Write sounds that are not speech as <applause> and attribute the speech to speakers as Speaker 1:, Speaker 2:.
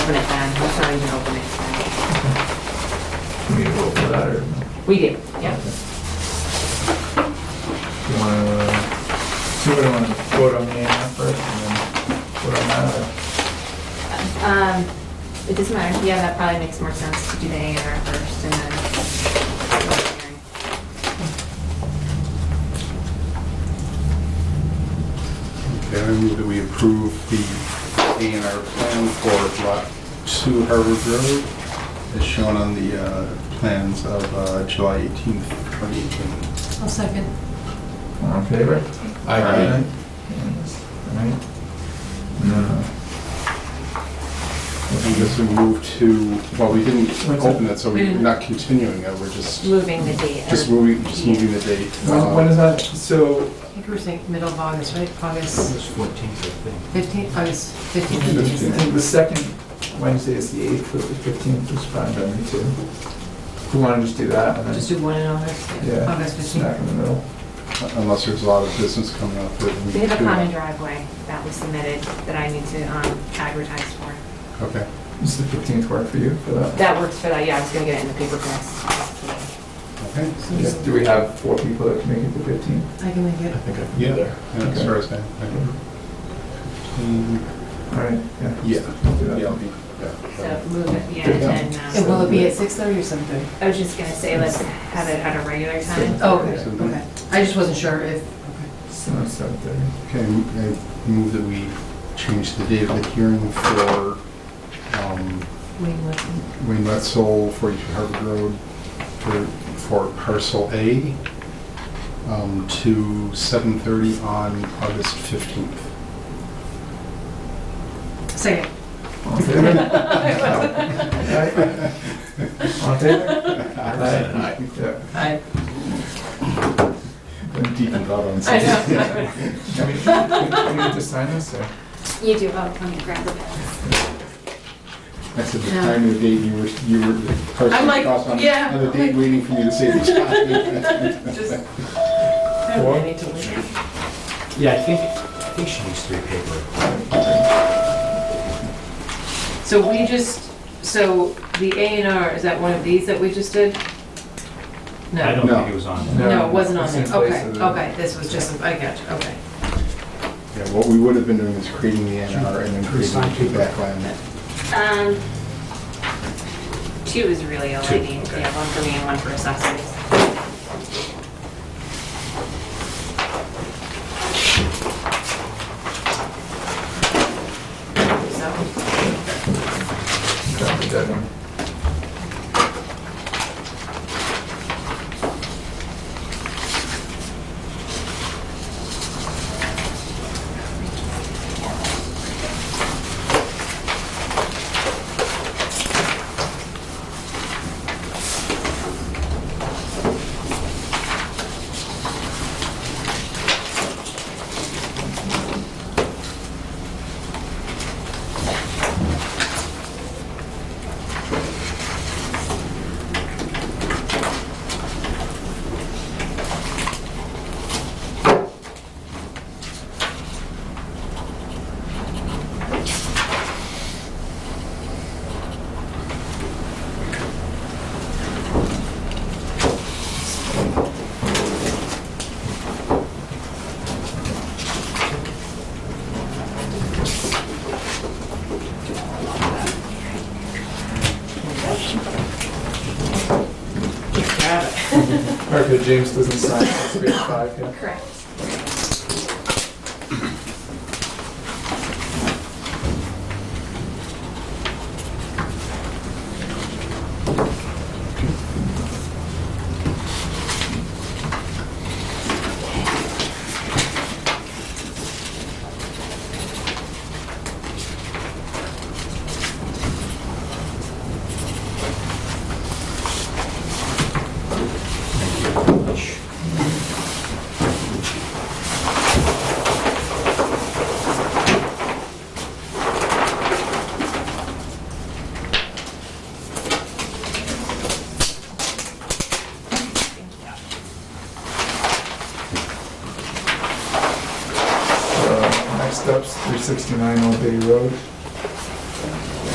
Speaker 1: open it then, let's not even open it.
Speaker 2: We need to vote for that, or?
Speaker 1: We did, yep.
Speaker 2: You wanna, see what I wanna vote on the A and R first, and then vote on that,
Speaker 1: Um, it doesn't matter, yeah, that probably makes more sense to do the A and R first and then.
Speaker 3: Okay, I move that we approve the A and R plan for Lot 2 Harvard Road as shown on the uh, plans of uh, July 18th, 2018.
Speaker 4: I'll second.
Speaker 2: or, all in favor?
Speaker 3: Aye.
Speaker 2: Alright. Alright. And then, uh,
Speaker 3: I guess we move to, well, we didn't
Speaker 2: What's
Speaker 3: open it, so
Speaker 4: We
Speaker 3: we're
Speaker 4: didn't.
Speaker 3: not continuing it, we're just,
Speaker 1: Moving the date.
Speaker 3: just moving, just moving the date. uh,
Speaker 2: When, when is that, so,
Speaker 4: I think we're saying middle of August, right?
Speaker 5: It
Speaker 4: August
Speaker 5: was 14th, I think.
Speaker 4: 15th, August
Speaker 2: the
Speaker 4: 15th.
Speaker 2: the second Wednesday is the eighth, but the fifteenth is fine by me too. We wanna just do that, and
Speaker 4: Just
Speaker 2: then,
Speaker 4: do one in August,
Speaker 2: Yeah.
Speaker 4: August 15th.
Speaker 2: smack in the middle.
Speaker 3: Unless there's a lot of business coming up that we.
Speaker 1: They have a
Speaker 3: do.
Speaker 1: common driveway that was submitted that I need to, um, advertise for.
Speaker 3: Okay.
Speaker 2: Does the fifteenth work for you for that?
Speaker 1: That works for that, yeah, I was gonna get it in the paper press.
Speaker 3: Okay.
Speaker 2: Yes, Do we have four people that can make it the fifteenth?
Speaker 4: I can make it.
Speaker 5: think I
Speaker 3: Yeah, yeah, that's
Speaker 2: Okay.
Speaker 3: Thursday. Okay. Mm,
Speaker 2: Alright, yeah.
Speaker 3: Yeah,
Speaker 2: We'll do that.
Speaker 3: yeah, I'll be- yeah.
Speaker 1: So move it, yeah, and
Speaker 4: And
Speaker 1: then, um,
Speaker 4: will it be at 6:30 or 7:30?
Speaker 1: I was just gonna say, let's have it at a regular time.
Speaker 4: Oh, okay,
Speaker 2: Mm-hmm.
Speaker 3: So-
Speaker 4: okay. I just wasn't sure if,
Speaker 2: So that's seven thirty.
Speaker 3: Okay, I move that we change the date of the hearing for um,
Speaker 4: Wayne was,
Speaker 3: Wayne Wetzel, 42 Harvard Road, for for parcel A um, to 7:30 on August 15th.
Speaker 4: <laughs> second.
Speaker 2: All in favor? Aye. All in <laughs> favor?
Speaker 3: Aye.
Speaker 2: Yeah.
Speaker 4: I,
Speaker 3: I'm deep in thought on
Speaker 1: I
Speaker 3: something.
Speaker 4: <laughs>
Speaker 1: know.
Speaker 2: I mean, do we need to sign this, or?
Speaker 1: You do, oh, let me grab the pen.
Speaker 3: I said the
Speaker 4: No.
Speaker 3: time of the date you were, you were the person
Speaker 4: I'm like,
Speaker 3: across on
Speaker 4: yeah,
Speaker 3: on the
Speaker 4: I'm
Speaker 3: date
Speaker 4: like-
Speaker 3: waiting for me to say the
Speaker 4: <laughs>
Speaker 3: time.
Speaker 4: just, I
Speaker 2: Four?
Speaker 4: don't need to leave.
Speaker 5: Yeah, I think, I think she needs three paper.
Speaker 4: So we just, so the A and R, is that one of these that we just did? No.
Speaker 5: I don't
Speaker 3: No.
Speaker 5: think it was on. there.
Speaker 4: No, it wasn't on
Speaker 2: it's
Speaker 4: there.
Speaker 2: in place
Speaker 4: Okay,
Speaker 2: of the-
Speaker 4: okay, this was just, I got you, okay.
Speaker 3: Yeah, what we would have been doing is creating the NR and then creating the feedback line.
Speaker 1: Um, two is really all I
Speaker 5: Two,
Speaker 1: need,
Speaker 5: okay.
Speaker 1: yeah, one for me and one for accessories. So,
Speaker 2: Drop the dead one. Perfect, James doesn't sign, it's grade five, yeah.
Speaker 1: correct.
Speaker 2: Uh, Next up's three sixty-nine Old Bay Road.